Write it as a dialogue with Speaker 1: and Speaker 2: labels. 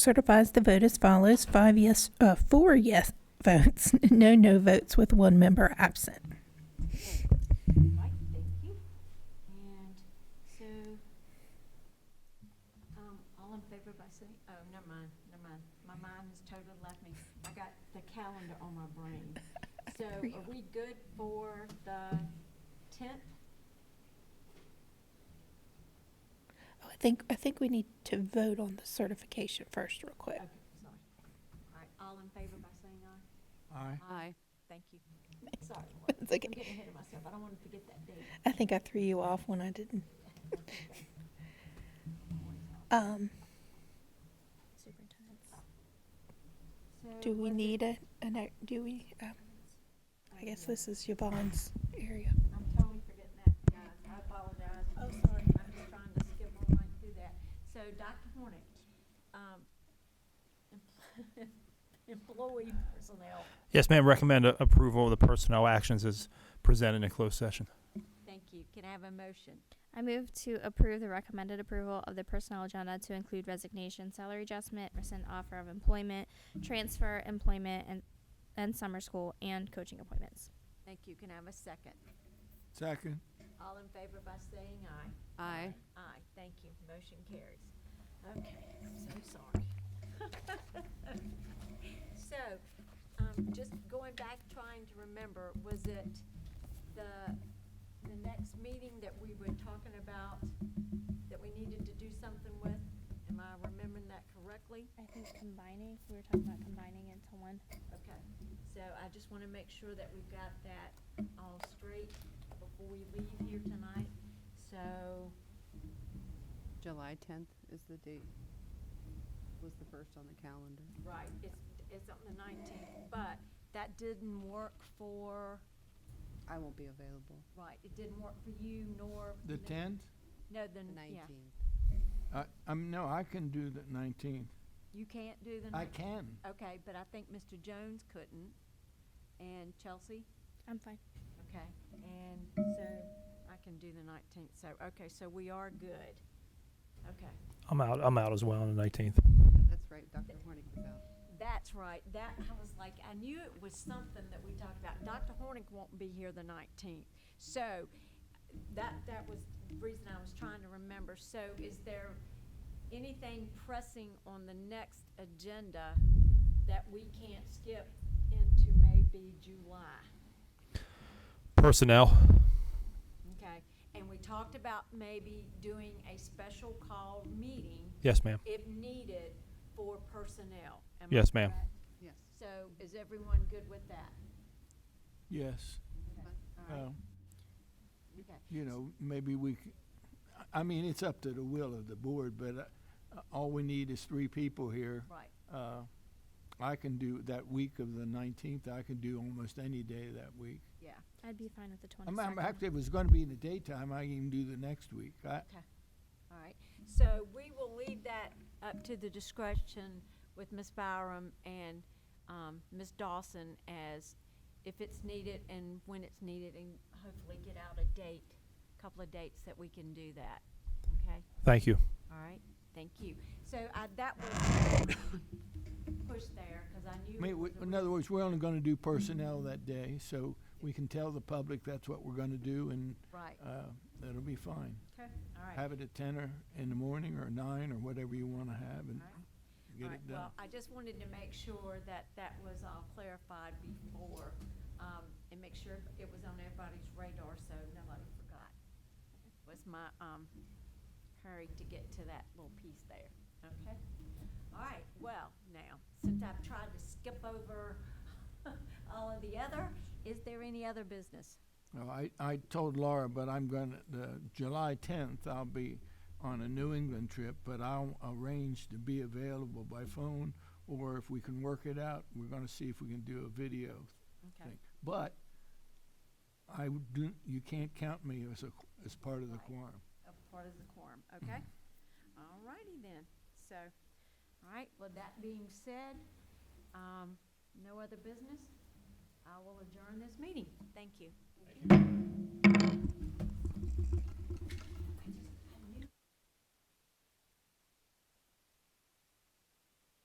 Speaker 1: certifies the vote as follows: five yes, uh, four yes votes, no no votes, with one member absent.
Speaker 2: Right, thank you. And so, um, all in favor by saying, oh, never mind, never mind. My mind has totally left me. I got the calendar on my brain. So are we good for the tenth?
Speaker 1: Oh, I think I think we need to vote on the certification first, real quick.
Speaker 2: Okay, sorry. All right, all in favor by saying aye?
Speaker 3: Aye.
Speaker 2: Aye. Thank you. Sorry, Laura.
Speaker 1: It's okay.
Speaker 2: I'm getting ahead of myself. I don't want to forget that date.
Speaker 1: I think I threw you off when I didn't. Um, do
Speaker 2: So
Speaker 1: we
Speaker 2: was it-
Speaker 1: need a, an ac- do we? Um, I
Speaker 2: Oh,
Speaker 1: guess this is Yvonne's area.
Speaker 2: I'm totally forgetting that, guys. I apologize. Oh, sorry. I'm just trying to skip on right through that. So, Dr. Hornick, um, em- employee personnel,
Speaker 3: Yes, ma'am, recommend a- approval of the personnel actions as presented in closed session.
Speaker 2: thank you. Can I have a motion?
Speaker 4: I move to approve the recommended approval of the personnel agenda to include resignation, salary adjustment, rescind offer of employment, transfer, employment, and, and summer school and coaching appointments.
Speaker 2: Thank you. Can I have a second?
Speaker 5: Second.
Speaker 2: All in favor by saying aye?
Speaker 6: Aye.
Speaker 2: Aye, thank you. Motion carries. Okay, I'm so sorry. So, um, just going back, trying to remember, was it the, the next meeting that we were talking about that we needed to do something with? Am I remembering that correctly?
Speaker 4: I think combining, we were talking about combining into one.
Speaker 2: Okay, so I just want to make sure that we've got that all straight before we leave here tonight. So,
Speaker 6: July tenth is the date, was the first on the calendar.
Speaker 2: Right, it's, it's on the nineteenth, but that didn't work for,
Speaker 6: I won't be available
Speaker 2: right, it didn't work for you nor.
Speaker 5: The
Speaker 2: no-
Speaker 5: tenth?
Speaker 2: No, the,
Speaker 6: the
Speaker 2: n- yeah,
Speaker 6: nineteenth.
Speaker 5: I, I'm, no, I can do the nineteenth.
Speaker 2: you can't do the
Speaker 5: I
Speaker 2: nineteenth.
Speaker 5: can.
Speaker 2: Okay, but I think Mr. Jones couldn't, and Chelsea,
Speaker 4: I'm fine.
Speaker 2: okay, and so I can do the nineteenth, so, okay, so we are good. Okay,
Speaker 3: I'm out, I'm out as well on the 19th.
Speaker 6: That's right, Dr. Hornick was out.
Speaker 2: that's right, that, I was like, I knew it was something that we talked about. Dr. Hornick won't be here the nineteenth, so that, that was the reason I was trying to remember. So is there anything pressing on the next agenda that we can't skip into maybe July?
Speaker 3: Personnel,
Speaker 2: Okay, and we talked about maybe doing a special call meeting
Speaker 3: yes, ma'am.
Speaker 2: if needed for personnel. Am I
Speaker 3: Yes, ma'am.
Speaker 2: correct?
Speaker 6: Yes.
Speaker 2: So is everyone good with that?
Speaker 5: Yes.
Speaker 2: All right,
Speaker 5: Well,
Speaker 2: okay.
Speaker 5: you know, maybe we, c- I mean, it's up to the will of the board, but uh, uh, all we need is three people here.
Speaker 2: Right,
Speaker 5: Uh, I can do that week of the nineteenth. I can do almost any day that week.
Speaker 2: yeah.
Speaker 4: I'd be fine with the
Speaker 5: I'm, I'm,
Speaker 4: 22nd.
Speaker 5: actually, if it's gonna be in the daytime, I can even do the next week. I,
Speaker 2: All right, so we will leave that up to the discretion with Ms. Byram and um, Ms. Dawson as if it's needed and when it's needed, and hopefully get out a date, couple of dates that we can do that, okay?
Speaker 3: Thank you.
Speaker 2: All right, thank you. So I- that was pushed there, because I knew.
Speaker 5: I mean,
Speaker 2: it was
Speaker 5: we-
Speaker 2: a
Speaker 5: in other words, we're only gonna do personnel that day, so we can tell the public that's what we're gonna do and,
Speaker 2: re- Right,
Speaker 5: uh, that'll be fine.
Speaker 2: okay, all right.
Speaker 5: have it at ten or in the morning or nine or whatever you want to have and
Speaker 2: All right. All
Speaker 5: get
Speaker 2: right,
Speaker 5: it done.
Speaker 2: Well, I just wanted to make sure that that was all clarified before, um, and make sure it was on everybody's radar, so nobody forgot. Was my, um, hurry to get to that little piece there, okay? All right, well, now, since I've tried to skip over all of the other, is there any other business?
Speaker 5: No, I, I told Laura, but I'm gonna, the July tenth, I'll be on a New England trip, but I'll arrange to be available by phone or if we can work it out, we're gonna see if we can do a video
Speaker 2: Okay,
Speaker 5: thing. But I would do, you can't count me as a, qu- as part of the
Speaker 2: Right.
Speaker 5: quorum.
Speaker 2: a part of the quorum, okay? All righty then, so, all right, with that being said, um, no other business? I will adjourn this meeting. Thank you.